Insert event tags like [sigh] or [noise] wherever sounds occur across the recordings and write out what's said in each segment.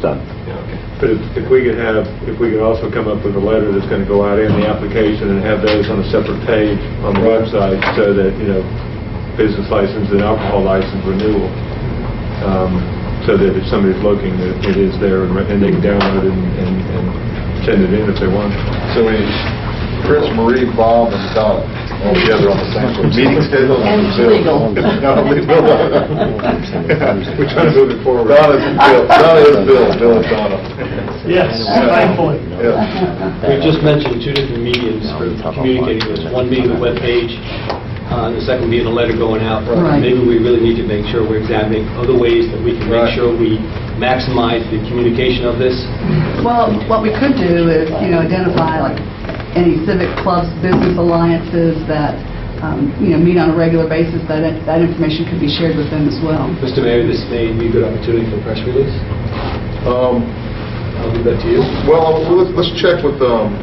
done. But if, if we could have, if we could also come up with a letter that's going to go out in the application and have those on a separate page on the website so that, you know, business license and alcohol license renewal, um, so that if somebody's looking, that it is there and and they can download it and- and and send it in if they [laughs] want. So we, Chris, Marie, Bob, and Don, all together on the same meeting schedule. And it's legal. No, we- no. We're trying to move it forward. Donna is Bill, Donna is Bill, Bill and Donna. Yes, thankfully. Yeah. We've just mentioned two different mediums for communicating this, one being the webpage, uh, and the second being a letter going out. Right. Maybe we really need to make sure we're examining other ways that we can Right. make sure we maximize the communication of this. Well, what we could do is, you know, identify like any civic clubs, business alliances that, um, you know, meet on a regular basis, that, that information could be shared with them as well. Mr. Mayor, this may be a good opportunity for a press release. Um, I'll leave that to you. Well, let's, let's check with, um,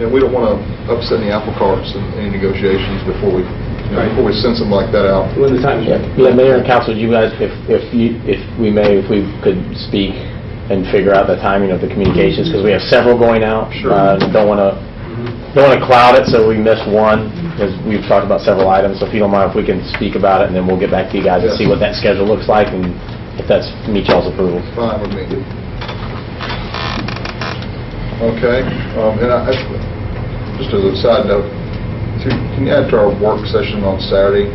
you know, we don't want to upset any apple carts in any negotiations before we, you know, Right. before we send something like that out. When the time is Yeah, right. yeah, Mayor and Council, you guys, if, if you, if we may, if we could speak and figure out the timing of the communications, because we have several going out. Sure. Uh, Don't want to, don't want to cloud it, so we miss one, because we've talked about several items, so if you don't mind, if we can speak about it, and then we'll get back to you guys and Yes. see what that schedule looks like, and if that's meet y'all's approval. Fine with me. Okay, um, and I, I- just as a side note, to- can you add to our work session on Saturday,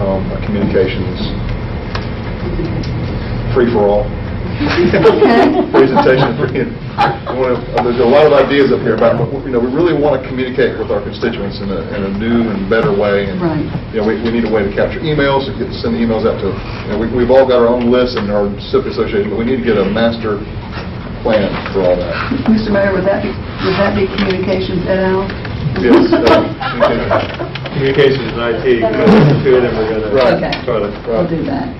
um, a communications, free-for-all? [laughs] [laughs] Presentation, free, we wanna- there's a lot of ideas up here about, you know, we really want to communicate with our constituents in a, in a new and better way. and Right. you know, we, we need a way to capture emails, to get, send emails out to, you know, we, we've all got our own lists and our civic association, but we need to get a master plan for all [laughs] that. Mr. Mayor, would that be, would that be communications et al? Yes, [laughs] uh, Communications and IT, you know, the two of them are going to Right. try to... We'll do that.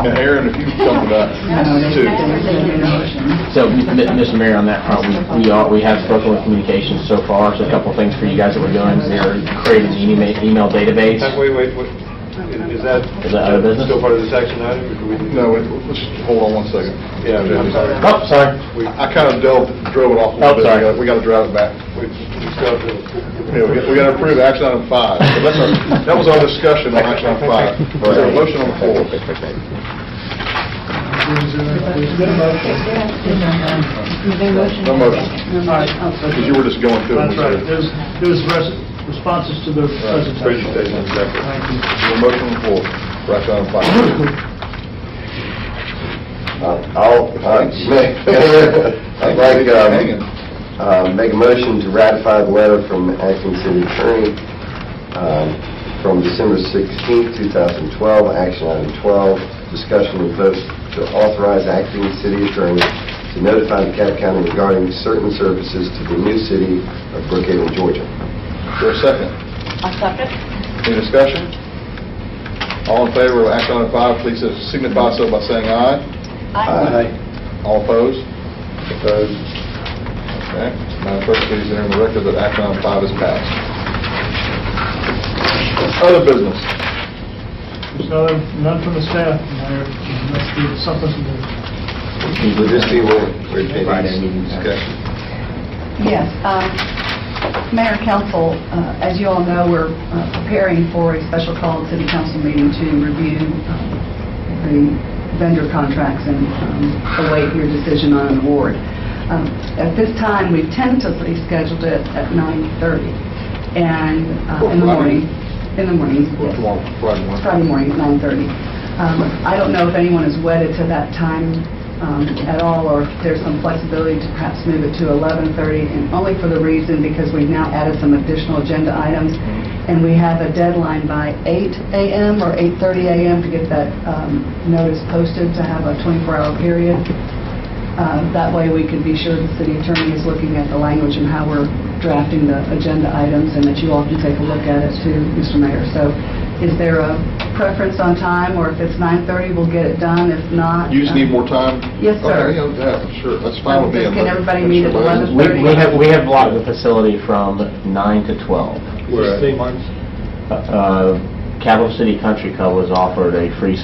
And Aaron, if you come to that, Two. So, m- m- Mr. Mayor, on that front, we we are, we have spoken with communications so far, so a couple of things for you guys that we're doing, we're creating an email email database. Uh, Wait, wait, wait. Is that Is that other business? still part of this action item? or do we- no, wait, let's just hold on one second. Yeah, I'm sorry. Oh, sorry. I kind of delved, drove it off a Oh, little bit. sorry. We gotta- We got to drive it back. We we still have to... Yeah, we got- we got to approve action item five. So that's our- That was our discussion on action item five. Is there a motion on the floor? No motion, because you were just going through. it. That's right. There's, there's res- responses to the presentation. Presentation is separate. Your motion on the floor, for action item five. Uh, I'll, I'd make- [laughs] I'd like, Hang on. um, uh, make a motion to ratify the letter from acting city attorney, um, from December 16th, 2012, action item 12, discussion and votes to authorize acting city attorney to notify DeKalb County regarding certain services to the new city of Brookhaven, Georgia. For a second. Any discussion? All in favor of action item five, please uh, signify so by saying aye. Aye. All opposed? Opposed? Okay. Madam Clerk, please enter in the record that action item five is passed. Other business. There's none, none from the staff, Mayor. Must be something from the- Would this be where where it is? Friday meeting. Okay. Yes. um, Mayor, council, uh, as you all know, we're uh, preparing for a special call city council meeting to review um, the vendor contracts and um, await your decision on an award. Um, At this time, we've tentatively scheduled it at 9:30 and uh, in the For Friday? morning. In the morning. yes. Tomorrow, Friday morning. It's Friday morning, at 9:30. Um, I don't know if anyone is wedded to that time um, at all, or if there's some flexibility to perhaps move it to 11:30, and only for the reason because we've now added some additional agenda items, and we have a deadline by 8 a.m. or 8:30 a.m. to get that um, notice posted to have a 24-hour period. Uh, That way, we can be sure the city attorney is looking at the language and how we're drafting the agenda items, and that you all can take a look at it too, Mr. Mayor. So is there a preference on time, or if it's 9:30, we'll get it done, if not? um, You just need more time? Yes, Okay, sir. yeah, yeah, sure, that's fine with me. Can everybody meet at Sure. 11? We we have, we have blocked the facility from 9 to 12. We're at- Uh, Capital City Country Club was offered a free